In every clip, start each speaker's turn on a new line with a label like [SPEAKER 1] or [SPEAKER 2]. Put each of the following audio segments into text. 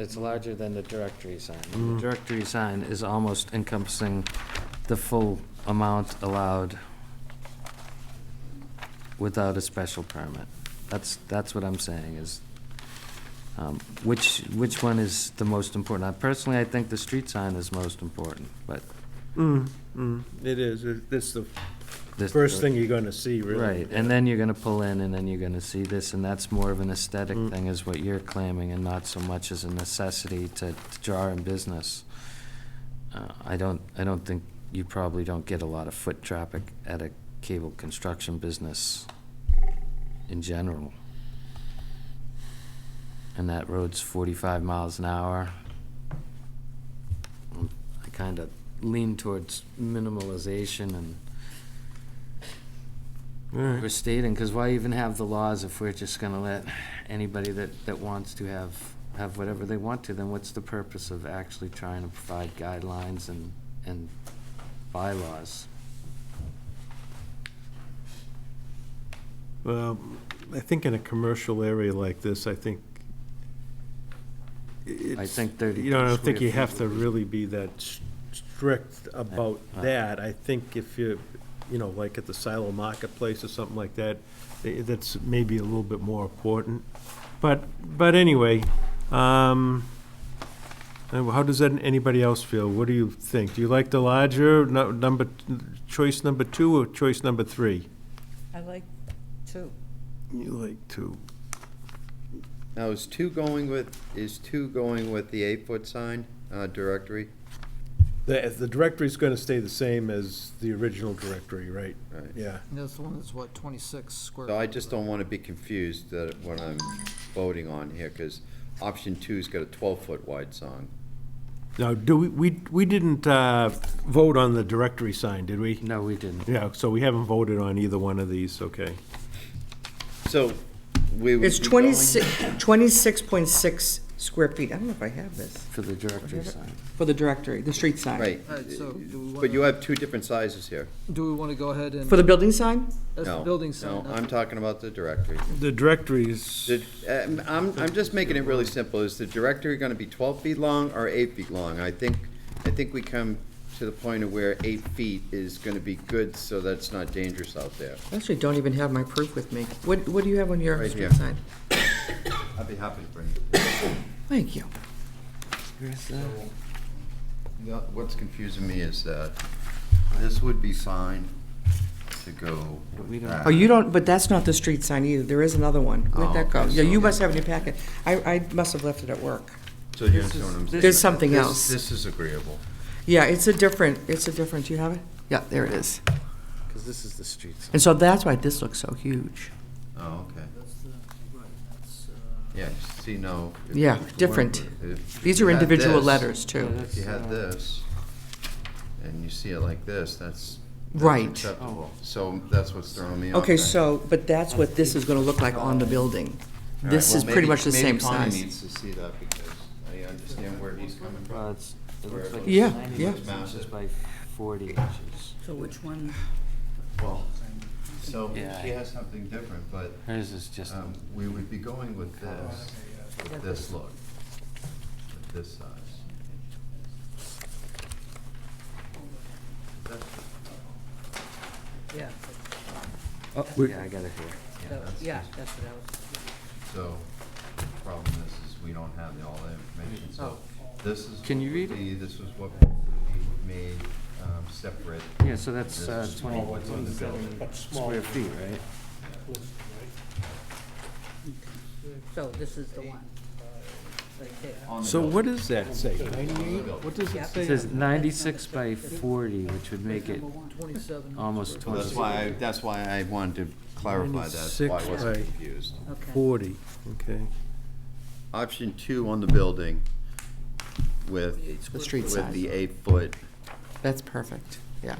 [SPEAKER 1] It's larger than the directory sign. The directory sign is almost encompassing the full amount allowed without a special permit. That's, that's what I'm saying is, um, which, which one is the most important? I- Personally, I think the street sign is most important, but
[SPEAKER 2] Mm, mm, it is, It- it's the
[SPEAKER 1] this.
[SPEAKER 2] first thing you're gonna see, really.
[SPEAKER 1] Right, and then you're gonna pull in and then you're gonna see this, and that's more of an aesthetic
[SPEAKER 2] Mm.
[SPEAKER 1] thing is what you're claiming and not so much as a necessity to to draw in business. Uh, I don't, I don't think, you probably don't get a lot of foot traffic at a cable construction business in general. And that road's forty-five miles an hour. Mm, I kinda lean towards minimalization and
[SPEAKER 2] Alright.
[SPEAKER 1] we're stating, because why even have the laws if we're just gonna let anybody that, that wants to have, have whatever they want to, then what's the purpose of actually trying to provide guidelines and, and bylaws?
[SPEAKER 2] Well, I think in a commercial area like this, I think
[SPEAKER 1] I
[SPEAKER 2] it's-
[SPEAKER 1] think 30
[SPEAKER 2] You know, I don't think you
[SPEAKER 1] square
[SPEAKER 2] have
[SPEAKER 1] feet
[SPEAKER 2] to
[SPEAKER 1] would be-
[SPEAKER 2] really be that s- strict about
[SPEAKER 1] Uh, uh.
[SPEAKER 2] that. I think if you, you know, like at the Silo Marketplace or something like that, i- that's maybe a little bit more important. But, but anyway, um, uh, how does that, anybody else feel? What do you think? Do you like the larger, nu- number, choice number two or choice number three?
[SPEAKER 3] I like two.
[SPEAKER 2] You like two.
[SPEAKER 4] Now, is two going with, is two going with the eight-foot sign uh, directory?
[SPEAKER 2] The, the directory's gonna stay the same as the original directory, right?
[SPEAKER 4] Right.
[SPEAKER 2] Yeah.
[SPEAKER 5] And That's the one that's what, 26 square?
[SPEAKER 4] So I
[SPEAKER 5] feet,
[SPEAKER 4] just
[SPEAKER 5] right?
[SPEAKER 4] don't want to be confused that what I'm voting on here, because option two's got a twelve-foot wide sign.
[SPEAKER 2] Now, do we, we, we didn't, uh, vote on the directory sign, did we?
[SPEAKER 1] No, we didn't.
[SPEAKER 2] Yeah, so we haven't voted on either one of these, okay.
[SPEAKER 4] So we would
[SPEAKER 3] It's
[SPEAKER 4] be going-
[SPEAKER 3] 26 26.6 square feet. I don't know if I have this.
[SPEAKER 1] For the directory sign.
[SPEAKER 3] For the directory, the street sign.
[SPEAKER 4] Right.
[SPEAKER 5] Alright, so do we
[SPEAKER 4] uh, But you
[SPEAKER 5] wanna-
[SPEAKER 4] have two different sizes here.
[SPEAKER 5] Do we want to go ahead and?
[SPEAKER 3] For the building sign?
[SPEAKER 5] That's the
[SPEAKER 4] No,
[SPEAKER 5] building sign.
[SPEAKER 4] No,
[SPEAKER 5] not
[SPEAKER 4] I'm
[SPEAKER 5] the-
[SPEAKER 4] talking about the directory.
[SPEAKER 2] The directories,
[SPEAKER 4] The- um, I'm, I'm just making it really simple. Is the directory going to be twelve feet long or eight feet long? I think, I think we come to the point of where eight feet is going to be good, so that's not dangerous out there.
[SPEAKER 3] I actually don't even have my proof with me. What, what do you have on your
[SPEAKER 4] Right
[SPEAKER 3] street
[SPEAKER 4] here.
[SPEAKER 3] sign?
[SPEAKER 4] I'd be happy to bring it.
[SPEAKER 3] Thank you.
[SPEAKER 4] Yeah, uh, What's confusing me is that this would be fine to go.
[SPEAKER 1] But we
[SPEAKER 4] with
[SPEAKER 1] don't-
[SPEAKER 4] that.
[SPEAKER 3] Oh, you don't, but that's not the street sign either. There is another one. Where'd
[SPEAKER 4] Oh,
[SPEAKER 3] that go?
[SPEAKER 4] okay,
[SPEAKER 3] Yeah,
[SPEAKER 4] so-
[SPEAKER 3] you must have it in your packet. I, I must have left it at work.
[SPEAKER 4] So you understand what I'm saying?
[SPEAKER 3] There's something
[SPEAKER 4] This-
[SPEAKER 3] else.
[SPEAKER 4] This is agreeable.
[SPEAKER 3] Yeah, it's a different, it's a different, do you have it? Yeah, there it is.
[SPEAKER 1] Because this is the street sign.
[SPEAKER 3] And so that's why this looks so huge.
[SPEAKER 4] Oh, okay.
[SPEAKER 5] That's the, right, that's, uh,
[SPEAKER 4] Yeah, see, no. if-
[SPEAKER 3] Yeah,
[SPEAKER 4] if you
[SPEAKER 3] different.
[SPEAKER 4] wanted- if
[SPEAKER 3] These
[SPEAKER 4] you
[SPEAKER 3] are
[SPEAKER 4] had
[SPEAKER 3] individual
[SPEAKER 4] this-
[SPEAKER 3] letters, too.
[SPEAKER 4] If you had this, and you see it like this, that's. that's
[SPEAKER 3] Right.
[SPEAKER 4] Acceptable. So that's what's throwing me off.
[SPEAKER 3] Okay,
[SPEAKER 4] there.
[SPEAKER 3] so, but that's what this is gonna look like on the building.
[SPEAKER 4] All right,
[SPEAKER 3] This
[SPEAKER 4] well,
[SPEAKER 3] is pretty
[SPEAKER 4] maybe-
[SPEAKER 3] much the same
[SPEAKER 4] Maybe Connie
[SPEAKER 3] size.
[SPEAKER 4] needs to see that because I understand where he's coming from.
[SPEAKER 1] Well, it's, it looks like.
[SPEAKER 3] Yeah,
[SPEAKER 1] it's 90
[SPEAKER 3] yeah.
[SPEAKER 1] inches by forty inches.
[SPEAKER 6] So which one?
[SPEAKER 4] Well, so
[SPEAKER 1] Yeah.
[SPEAKER 4] she has something different, but
[SPEAKER 1] Hers is just, Oh,
[SPEAKER 4] um, we would be going with this, with this look, with this size.
[SPEAKER 6] Yeah,
[SPEAKER 1] yeah, I got it here.
[SPEAKER 6] that-
[SPEAKER 4] that's-
[SPEAKER 6] yeah, that's what I was.
[SPEAKER 4] So, problem is, is we don't have all the information, so this is.
[SPEAKER 1] Can you
[SPEAKER 4] what
[SPEAKER 1] read
[SPEAKER 4] would
[SPEAKER 1] it?
[SPEAKER 4] be- This was what would be made um, separate.
[SPEAKER 1] Yeah, so that's
[SPEAKER 4] This
[SPEAKER 1] uh,
[SPEAKER 4] is
[SPEAKER 1] twenty
[SPEAKER 4] what's on the building.
[SPEAKER 1] square feet, right?
[SPEAKER 6] So this is the one, right there.
[SPEAKER 4] On the
[SPEAKER 2] so
[SPEAKER 4] building.
[SPEAKER 2] what does that say? What does it
[SPEAKER 6] Yep.
[SPEAKER 1] It
[SPEAKER 2] say?
[SPEAKER 1] says ninety-six by forty, which would make it
[SPEAKER 6] Number one.
[SPEAKER 5] 27.
[SPEAKER 1] almost
[SPEAKER 4] Well,
[SPEAKER 1] twenty.
[SPEAKER 4] That's why, I- that's why I wanted to clarify that, that's why I
[SPEAKER 2] 96
[SPEAKER 4] wasn't
[SPEAKER 2] by-
[SPEAKER 4] confused.
[SPEAKER 6] Okay.
[SPEAKER 2] Forty, okay.
[SPEAKER 4] Option two on the building with.
[SPEAKER 3] The street
[SPEAKER 4] With
[SPEAKER 3] size.
[SPEAKER 4] the eight-foot
[SPEAKER 3] That's perfect, yeah.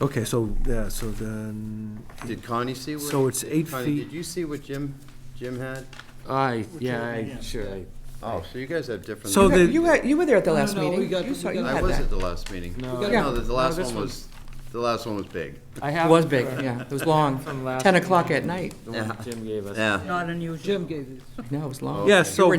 [SPEAKER 2] Okay, so, yeah, so then,
[SPEAKER 4] Did Connie see what?
[SPEAKER 2] so it's eight
[SPEAKER 4] Connie,
[SPEAKER 2] feet.
[SPEAKER 4] did you see what Jim, Jim had?
[SPEAKER 1] I, yeah, I, sure, I
[SPEAKER 4] Oh, so you guys have different.
[SPEAKER 2] So the-
[SPEAKER 3] You were, you were there at the
[SPEAKER 5] No, no,
[SPEAKER 3] last
[SPEAKER 5] no, we
[SPEAKER 3] meeting.
[SPEAKER 5] got-
[SPEAKER 3] You saw,
[SPEAKER 5] we
[SPEAKER 3] you
[SPEAKER 5] got-
[SPEAKER 4] I
[SPEAKER 3] had
[SPEAKER 4] was
[SPEAKER 3] that.
[SPEAKER 4] at the last meeting.
[SPEAKER 1] No.
[SPEAKER 4] No,
[SPEAKER 1] Yeah.
[SPEAKER 4] the- the
[SPEAKER 1] No,
[SPEAKER 4] last
[SPEAKER 1] this
[SPEAKER 4] one was, the last one was big.
[SPEAKER 1] I
[SPEAKER 3] It
[SPEAKER 1] have.
[SPEAKER 3] was big, yeah, it was long,
[SPEAKER 1] From last
[SPEAKER 3] 10 o'clock at night.
[SPEAKER 1] The one Jim gave us.
[SPEAKER 4] Yeah.
[SPEAKER 6] Not unusual.
[SPEAKER 5] Jim gave it.
[SPEAKER 3] No, it was long.
[SPEAKER 4] Yeah,
[SPEAKER 3] You
[SPEAKER 2] so-
[SPEAKER 3] were